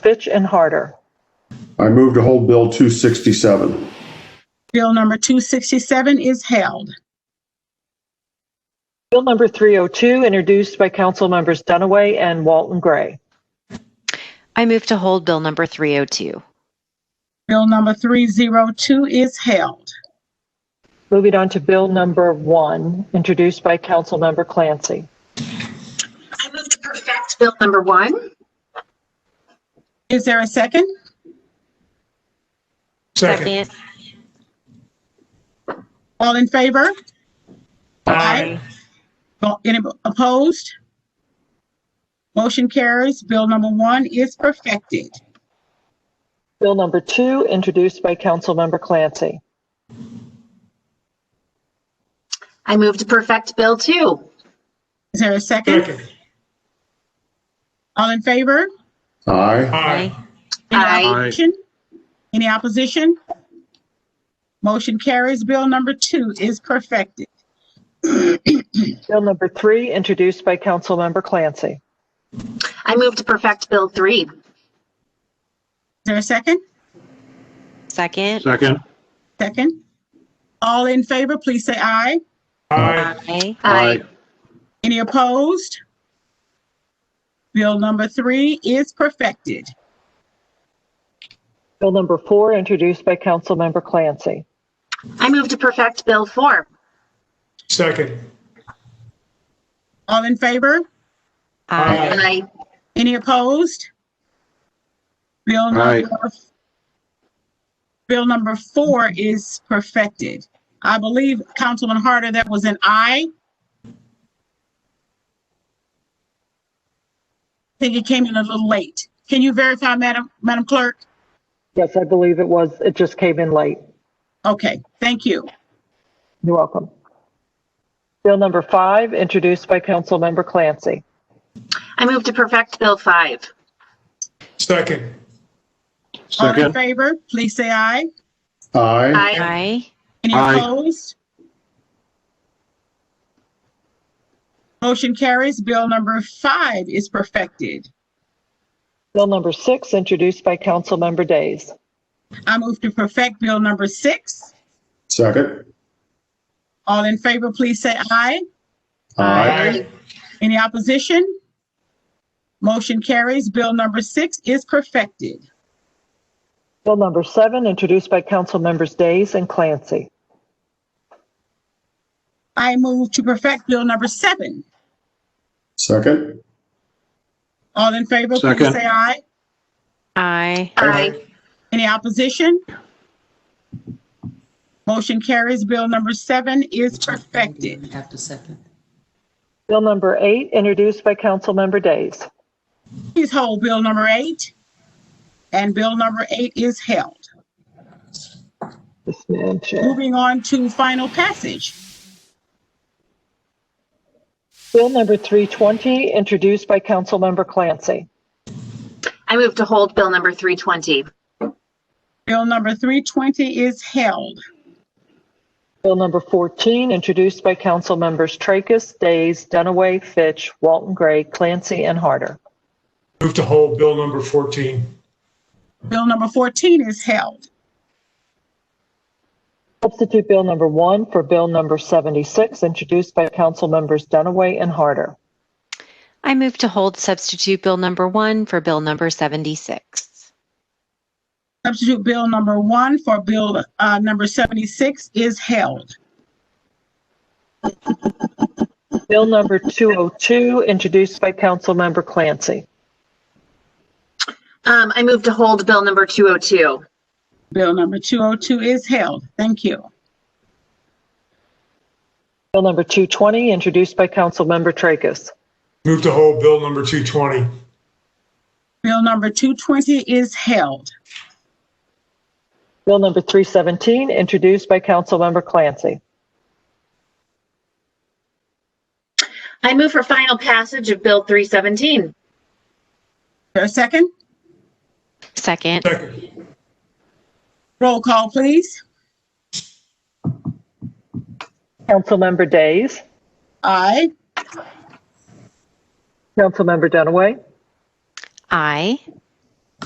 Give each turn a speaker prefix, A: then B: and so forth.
A: Fitch and Harder.
B: I move to hold Bill 267.
C: Bill number 267 is held.
A: Bill number 302, introduced by Council Members Dunaway and Walton Gray.
D: I move to hold Bill number 302.
C: Bill number 302 is held.
A: Moving on to Bill number 1, introduced by Council Member Clancy.
E: I move to perfect Bill number one.
C: Is there a second?
F: Second.
C: All in favor?
F: Aye.
C: Well, Any opposed? Motion carries. Bill number 1 is perfected.
A: Bill number 2, introduced by Council Member Clancy.
E: I move to perfect Bill two.
C: Is there a second?
F: Second.
C: All in favor?
B: Aye.
F: Aye.
C: Any
E: Aye.
C: opposition? Any opposition? Motion carries. Bill number 2 is perfected.
A: Bill number 3, introduced by Council Member Clancy.
E: I move to perfect Bill three.
C: Is there a second?
D: Second.
F: Second.
C: Second. All in favor, please say aye.
F: Aye.
D: Aye.
E: Aye.
C: Any opposed? Bill number three is perfected.
A: Bill number 4, introduced by Council Member Clancy.
E: I move to perfect Bill four.
F: Second.
C: All in favor?
D: Aye.
E: Aye.
C: Any opposed? Bill
F: Aye.
C: number, bill number four is perfected. I believe Councilman Harder, that was an aye. I think it came in a little late. Can you verify, Madam, Madam Clerk?
A: Yes, I believe it was, it just came in late.
C: Okay, thank you.
A: You're welcome. Bill number 5, introduced by Council Member Clancy.
E: I move to perfect Bill five.
F: Second.
C: All in favor, please say aye.
B: Aye.
E: Aye.
C: Any
F: Aye.
C: opposed? Motion carries. Bill number five is perfected.
A: Bill number 6, introduced by Council Member Days.
C: I move to perfect Bill number six.
B: Second.
C: All in favor, please say aye.
F: Aye.
C: Any opposition? Motion carries. Bill number six is perfected.
A: Bill number 7, introduced by Council Members Days and Clancy.
C: I move to perfect Bill number seven.
B: Second.
C: All in favor, please
F: Second.
C: say aye.
D: Aye.
E: Aye.
C: Any opposition? Motion carries. Bill number seven is perfected.
G: Have to second.
A: Bill number 8, introduced by Council Member Days.
C: Please hold Bill number eight. And Bill number eight is held.
A: Yes, Madam Chair.
C: Moving on to final passage.
A: Bill number 320, introduced by Council Member Clancy.
E: I move to hold Bill number three twenty.
C: Bill number 320 is held.
A: Bill number 14, introduced by Council Members Tracus, Days, Dunaway, Fitch, Walton Gray, Clancy, and Harder.
F: Move to hold Bill number 14.
C: Bill number 14 is held.
A: Substitute Bill number 1 for Bill number 76, introduced by Council Members Dunaway and Harder.
D: I move to hold substitute Bill number 1 for Bill number 76.
C: Substitute Bill number 1 for Bill uh, number 76 is held.
A: Bill number 202, introduced by Councilmember Clancy.
E: Um, I move to hold Bill number two oh two.
C: Bill number 202 is held. Thank you.
A: Bill number 220, introduced by Councilmember Tracus.
F: Move to hold Bill number 220.
C: Bill number 220 is held.
A: Bill number 317, introduced by Councilmember Clancy.
E: I move for final passage of Bill three seventeen.
C: Is there a second?
D: Second.
F: Second.
C: Roll call, please.
A: Councilmember Days,
C: Aye.
A: Councilmember Dunaway,
D: Aye.